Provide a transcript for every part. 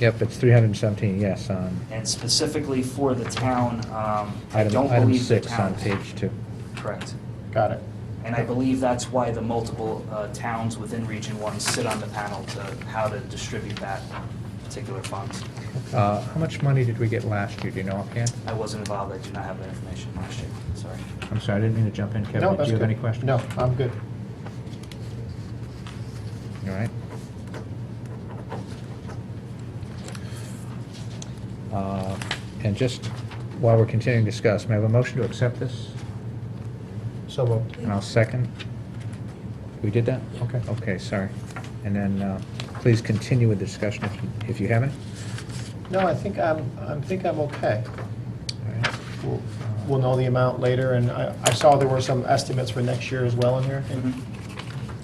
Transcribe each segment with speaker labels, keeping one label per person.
Speaker 1: Yep, it's 317, yes, on
Speaker 2: And specifically for the town, um, I
Speaker 1: item
Speaker 2: don't
Speaker 1: item
Speaker 2: believe the
Speaker 1: six
Speaker 2: town.
Speaker 1: on page two.
Speaker 2: Correct.
Speaker 3: Got it.
Speaker 2: And I believe that's why the multiple uh, towns within Region One sit on the panel to how to distribute that particular fund.
Speaker 1: Uh, How much money did we get last year, do you know offhand?
Speaker 2: I wasn't involved, I do not have that information last year, sorry.
Speaker 1: I'm sorry, I didn't mean to jump in,
Speaker 3: No,
Speaker 1: Kevin, do
Speaker 3: that's
Speaker 1: you have
Speaker 3: good.
Speaker 1: any questions?
Speaker 3: No, I'm good.
Speaker 1: All right. Uh, And just while we're continuing to discuss, may I have a motion to accept this?
Speaker 3: So moved.
Speaker 1: And I'll second. We did that?
Speaker 3: Okay.
Speaker 1: Okay, sorry. And then, uh, please continue with the discussion if you- if you have any.
Speaker 3: No, I think I'm, I think I'm okay.
Speaker 1: All right.
Speaker 3: We'll we'll know the amount later, and I, I saw there were some estimates for next year as well in here.
Speaker 1: Mm-hmm.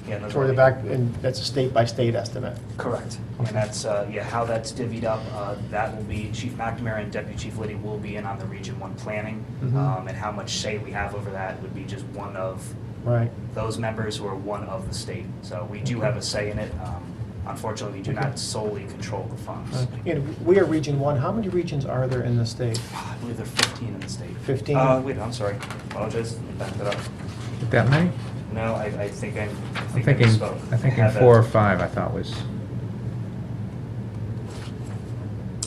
Speaker 2: Yeah, those
Speaker 3: Mm-hmm. Toward the
Speaker 2: are-
Speaker 3: back, and that's a state-by-state estimate.
Speaker 2: Correct. And that's, uh, yeah, how that's divvied up, uh, that will be, Chief McNamara and Deputy Chief Liddy will be in on the Region One planning.
Speaker 3: Mhm.
Speaker 2: um, And how much say we have over that would be just one of
Speaker 3: Right.
Speaker 2: those members who are one of the state. So we do have a say in it. Um, Unfortunately, we do not solely control the funds.
Speaker 3: And we are Region One. How many regions are there in the state?
Speaker 2: I believe there are 15 in the state.
Speaker 3: 15?
Speaker 2: Uh, Wait, I'm sorry. Apologize. Let me back that up.
Speaker 1: That many?
Speaker 2: No, I I think I I
Speaker 1: I'm
Speaker 2: think I
Speaker 1: thinking,
Speaker 2: misspoke.
Speaker 1: I'm thinking
Speaker 2: have that-
Speaker 1: four or five, I thought was,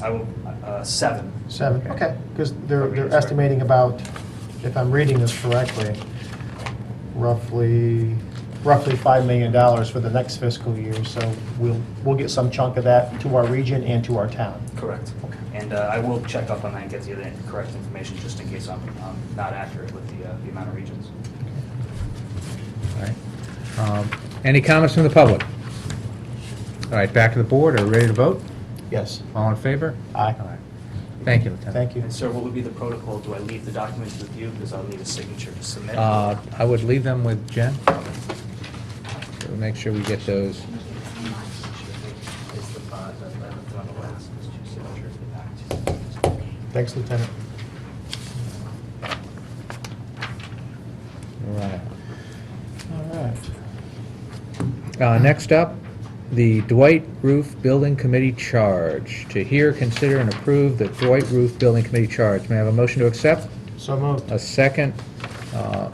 Speaker 2: I will, uh, seven.
Speaker 3: Seven,
Speaker 1: Okay.
Speaker 3: okay, because they're, they're estimating about, if I'm reading this correctly, roughly, roughly $5 million for the next fiscal year, so we'll, we'll get some chunk of that to our region and to our town.
Speaker 2: Correct.
Speaker 3: Okay.
Speaker 2: And uh, I will check up on that and get the other correct information, just in case I'm um, not accurate with the uh, the amount of regions.
Speaker 1: all right. Um, Any comments from the public? All right, back to the board, are we ready to vote?
Speaker 3: Yes.
Speaker 1: All in favor?
Speaker 3: Aye.
Speaker 1: All right. Thank you, Lieutenant.
Speaker 3: Thank you.
Speaker 2: And sir, what would be the protocol? Do I leave the documents with you, because I'll need a signature to submit?
Speaker 1: Uh, I would leave them with Jen. We'll Make sure we get those.
Speaker 2: It's the five that I left on the last, it's two signatures in the back.
Speaker 3: Thanks, Lieutenant.
Speaker 1: Right.
Speaker 3: All right.
Speaker 1: Uh, Next up, the Dwight Roof Building Committee Charge. To hear, consider, and approve the Dwight Roof Building Committee Charge. May I have a motion to accept?
Speaker 3: So moved.
Speaker 1: A second. Uh,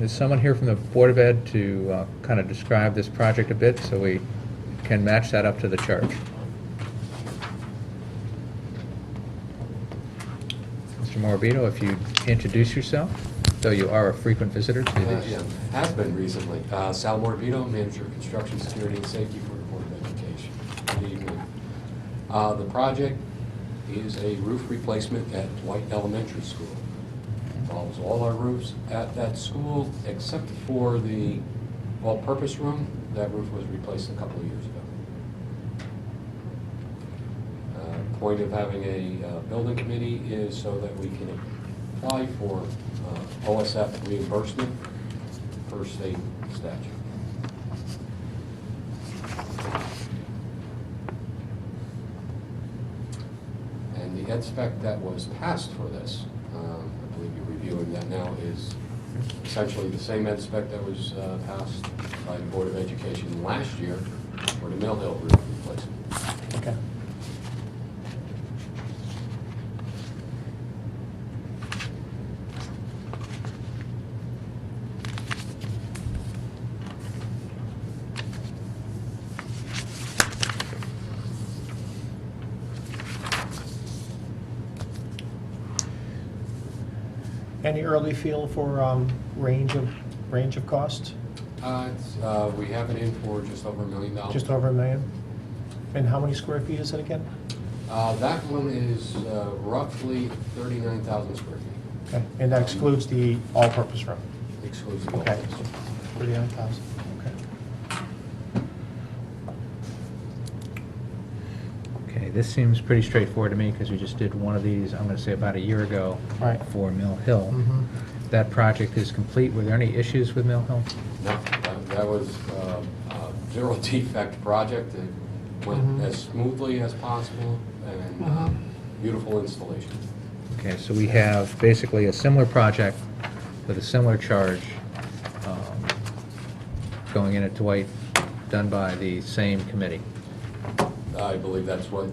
Speaker 1: Is someone here from the Board of Ed to uh, kind of describe this project a bit so we can match that up to the charge? Mr. Morabito, if you introduce yourself, though you are a frequent visitor to
Speaker 4: Uh,
Speaker 1: these.
Speaker 4: yeah, Has been recently. Uh, Sal Morabito, Manager of Construction Security and Safety for the Board of Education. Good evening. Uh, The project is a roof replacement at White Elementary School. Involves all our roofs at that school except for the all-purpose room. That roof was replaced a couple of years ago. Uh, Point of having a uh, building committee is so that we can apply for uh, OSF reimbursement per state statute. And the ed spec that was passed for this, um, I believe you're reviewing that now, is essentially the same ed spec that was uh, passed by the Board of Education last year for the Mill Hill roof replacement.
Speaker 3: Okay. Any early feel for um, range of, range of cost?
Speaker 4: Uh, it's, uh, We have it in for just over a million dollars.
Speaker 3: Just over a million? And how many square feet is it again?
Speaker 4: Uh, That one is uh, roughly 39,000 square feet,
Speaker 3: Okay, And that excludes the all-purpose room?
Speaker 4: exclusive of
Speaker 3: Okay.
Speaker 4: this.
Speaker 3: Thirty-nine thousand, okay.
Speaker 1: Okay, this seems pretty straightforward to me because we just did one of these, I'm going to say about a year ago.
Speaker 3: Right.
Speaker 1: For Mill Hill.
Speaker 4: Mm-hmm.
Speaker 1: That project is complete. Were there any issues with Mill Hill?
Speaker 4: No, that- that was uh, a zero defect project. It went
Speaker 3: Mhm.
Speaker 4: as smoothly as possible and uh,
Speaker 3: Mhm.
Speaker 4: beautiful installation.
Speaker 1: Okay, so we have basically a similar project with a similar charge um, going in at Dwight, done by the same committee.
Speaker 4: I believe that's what